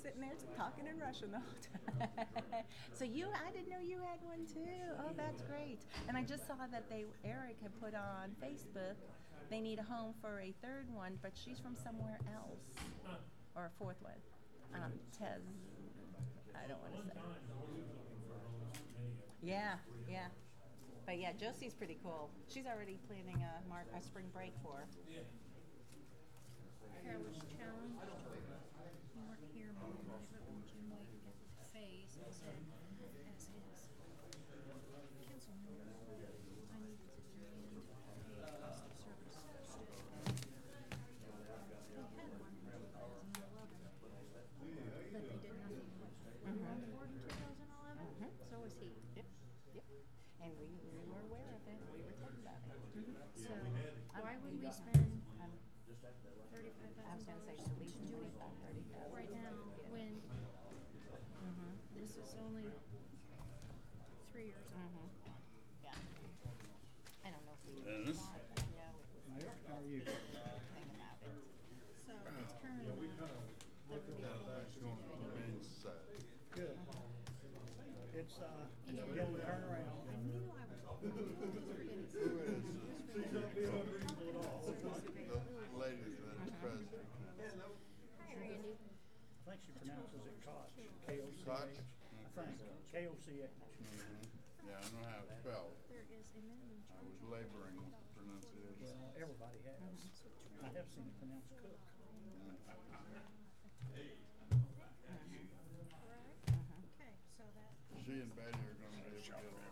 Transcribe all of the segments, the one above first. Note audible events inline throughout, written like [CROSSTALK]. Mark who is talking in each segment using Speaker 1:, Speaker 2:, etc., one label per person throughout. Speaker 1: sitting there talking in Russian the whole time. [LAUGHS] so you, I didn't know you had one too. Oh, that's great. And I just saw that they Eric had put on Facebook they need a home for a third one, but she's from somewhere else, or a fourth one. Um, Tez, I don't want to say. Yeah, yeah. But yeah, Josie's pretty cool. She's already planning a mark a spring break for. her.
Speaker 2: Carol's challenge. You weren't here, but you might Jim White get his face and said, as his council member, I needed to demand a cost of service. We had one in two thousand eleven. But they did nothing with it. We
Speaker 1: Mm-hmm.
Speaker 2: were on the board in two thousand eleven, so was he.
Speaker 1: Yep, yep. And we, we were aware of it. We were talking about it.
Speaker 2: So why would we spend
Speaker 1: Um,
Speaker 2: thirty-five
Speaker 1: I was gonna
Speaker 2: thousand
Speaker 1: say
Speaker 2: dollars
Speaker 1: at least
Speaker 2: to do it
Speaker 1: twenty-five, thirty thousand.
Speaker 2: right now when this is only three years old?
Speaker 1: Mm-hmm. Yeah. I don't know if we.
Speaker 3: Dennis?
Speaker 1: thought, but I know it was
Speaker 4: How are you?
Speaker 1: thing about it.
Speaker 2: So it's currently.
Speaker 4: Good. It's, uh, it's a little turnaround.
Speaker 2: I knew I was. I was forgetting something. She's not being unreasonable at all.
Speaker 3: Ladies that is present.
Speaker 2: Hi, Randy.
Speaker 4: I think she pronounces it Koch, K-O-C-H.
Speaker 3: Koch?
Speaker 4: I think, K-O-C-H.
Speaker 3: Yeah, I know how it's spelled.
Speaker 2: There is a minimum
Speaker 3: I
Speaker 2: charge.
Speaker 3: was laboring with the pronunciation.
Speaker 4: Well, everybody has. I have seen it pronounced
Speaker 2: Correct?
Speaker 4: Cook.
Speaker 1: Mm-hmm.
Speaker 2: Okay, so that,
Speaker 3: She and Betty are gonna be able to get along.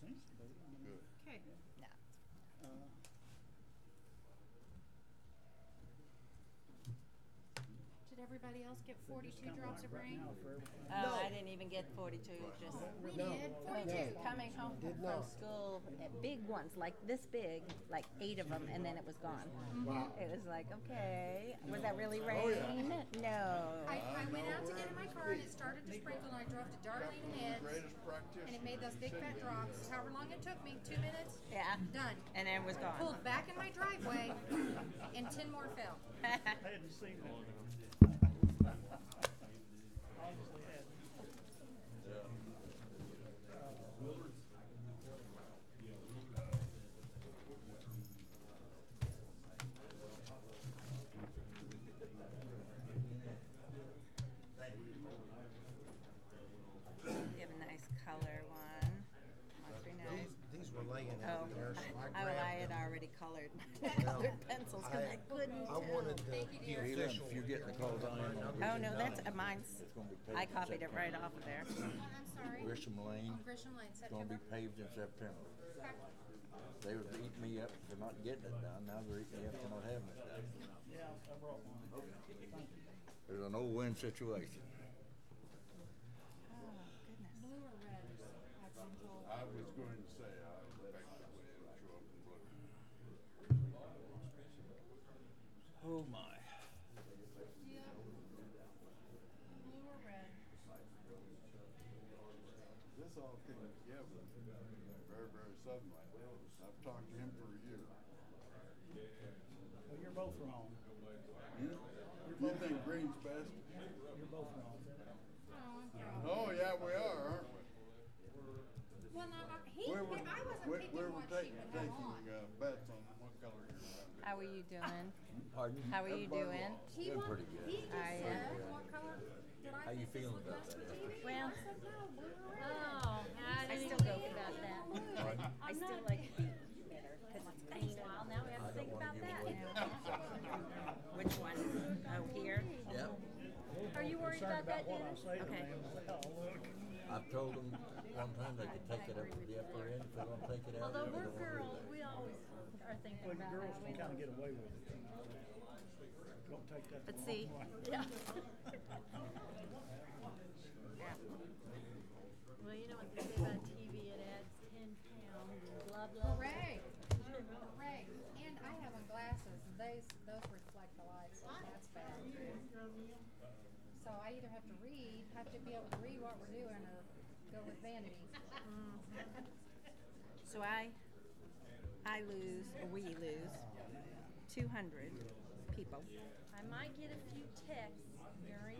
Speaker 4: Seems to be. I mean,
Speaker 3: Good.
Speaker 2: okay.
Speaker 1: No.
Speaker 4: uh,
Speaker 2: Did everybody else get forty-two
Speaker 4: kinda
Speaker 2: drops of
Speaker 4: like right
Speaker 2: rain?
Speaker 4: now for everything.
Speaker 1: Oh, I didn't even get forty-two, just.
Speaker 2: We did, forty-two.
Speaker 1: Coming home from school, uh, big ones, like this big, like eight of them, and then it was gone. It was like, okay, was that really rain? No.
Speaker 2: I, I went out to get in my car and it started to sprinkle and I drove to Darlene Heads
Speaker 3: Greatest practitioner.
Speaker 2: and it made those big fat drops, however long it took me, two minutes,
Speaker 1: Yeah,
Speaker 2: done.
Speaker 1: and then it was gone. [LAUGHS]
Speaker 2: Pulled back in my driveway and ten more fell.
Speaker 4: I hadn't seen it. [LAUGHS] Honestly, hadn't.
Speaker 1: You have a nice color one. Looks pretty nice.
Speaker 5: These were laying
Speaker 1: Oh,
Speaker 5: out there, so I
Speaker 1: I, I had
Speaker 5: grabbed them.
Speaker 1: already colored [LAUGHS] my colored pencils because I
Speaker 5: I-
Speaker 1: couldn't
Speaker 5: I
Speaker 1: tell.
Speaker 5: wanted the
Speaker 6: Yeah,
Speaker 5: the
Speaker 6: hey, listen,
Speaker 5: official.
Speaker 6: if you're getting the cold iron, I'll
Speaker 1: Oh,
Speaker 6: get you
Speaker 1: no,
Speaker 6: nine.
Speaker 1: that's, uh, mine's,
Speaker 6: It's gonna be
Speaker 1: I
Speaker 6: paved in
Speaker 1: copied it right
Speaker 6: September.
Speaker 1: off of there.
Speaker 2: Oh, I'm sorry.
Speaker 6: Grisham Lane,
Speaker 2: On Grisham Lane,
Speaker 6: it's gonna be
Speaker 2: September.
Speaker 6: paved in September.
Speaker 2: Okay.
Speaker 6: They were eating me up for not getting it done, now they're eating me up for not having it done.
Speaker 4: Yeah, I brought mine. Thank you.
Speaker 6: There's an old win situation.
Speaker 1: Oh, goodness.
Speaker 2: Blue or red? I've been told.
Speaker 3: I was going to say, I expect that we would show up and look.
Speaker 6: Oh, my.
Speaker 2: Yeah. Blue or red?
Speaker 3: This all came together very, very suddenly. I've talked to him for a year.
Speaker 4: Well, you're both wrong.
Speaker 3: You think green's best?
Speaker 4: You're both wrong.
Speaker 2: Oh, I'm proud.
Speaker 3: Oh, yeah, we are, aren't we?
Speaker 2: Well, no, no, he,
Speaker 3: Where were,
Speaker 2: I wasn't
Speaker 3: where,
Speaker 2: picking
Speaker 3: where were
Speaker 2: what she
Speaker 3: taking,
Speaker 2: would have
Speaker 3: taking,
Speaker 2: on.
Speaker 3: uh, bets on what color you're gonna
Speaker 1: How are you doing?
Speaker 6: Pardon?
Speaker 1: How are you doing?
Speaker 3: Everybody wants-
Speaker 2: He
Speaker 6: Doing
Speaker 2: wa-
Speaker 6: pretty good.
Speaker 2: He just
Speaker 1: I, uh,
Speaker 2: said, what color did I
Speaker 6: How you
Speaker 2: think this
Speaker 6: feeling
Speaker 2: looked nice
Speaker 6: about
Speaker 2: for
Speaker 6: that?
Speaker 2: TV?
Speaker 1: Well-
Speaker 2: I said, no, blue or red.
Speaker 7: Oh, I
Speaker 1: I
Speaker 7: didn't
Speaker 1: still
Speaker 7: even-
Speaker 1: go without that. I still like pink better because it's
Speaker 7: Takes
Speaker 1: clean.
Speaker 7: a while now, we have to think about that.
Speaker 3: [LAUGHS]
Speaker 1: Which one? Oh, here?
Speaker 6: Yep,
Speaker 7: Are you worried
Speaker 4: Concerned
Speaker 7: about
Speaker 4: about what
Speaker 7: that,
Speaker 4: I
Speaker 7: Dennis?
Speaker 4: say to
Speaker 1: Okay.
Speaker 4: them. Well, look.
Speaker 6: I've told them one time they could take it up to the upper end, if they don't take it out.
Speaker 7: Although
Speaker 6: they
Speaker 7: we're
Speaker 6: don't worry
Speaker 7: girls,
Speaker 6: about it.
Speaker 7: we always are thinking
Speaker 4: Well, the
Speaker 7: about
Speaker 4: girls
Speaker 7: how we
Speaker 4: can
Speaker 7: look.
Speaker 4: kind of get away with it. you know. Don't take that. the
Speaker 1: But
Speaker 4: wrong [LAUGHS]
Speaker 1: see-
Speaker 4: way.
Speaker 7: Yeah.
Speaker 4: [LAUGHS]
Speaker 1: Yeah.
Speaker 7: Well, you know what they say about TV, it adds ten pounds, and blah, blah, blah.
Speaker 2: Hooray, hooray. And I have on glasses, and those, those reflect the light, so that's bad. So I either have to read, have to be able to read what we're doing, or go with vanity.
Speaker 1: So I, I lose, or we lose, two hundred people.
Speaker 7: I might get a few texts during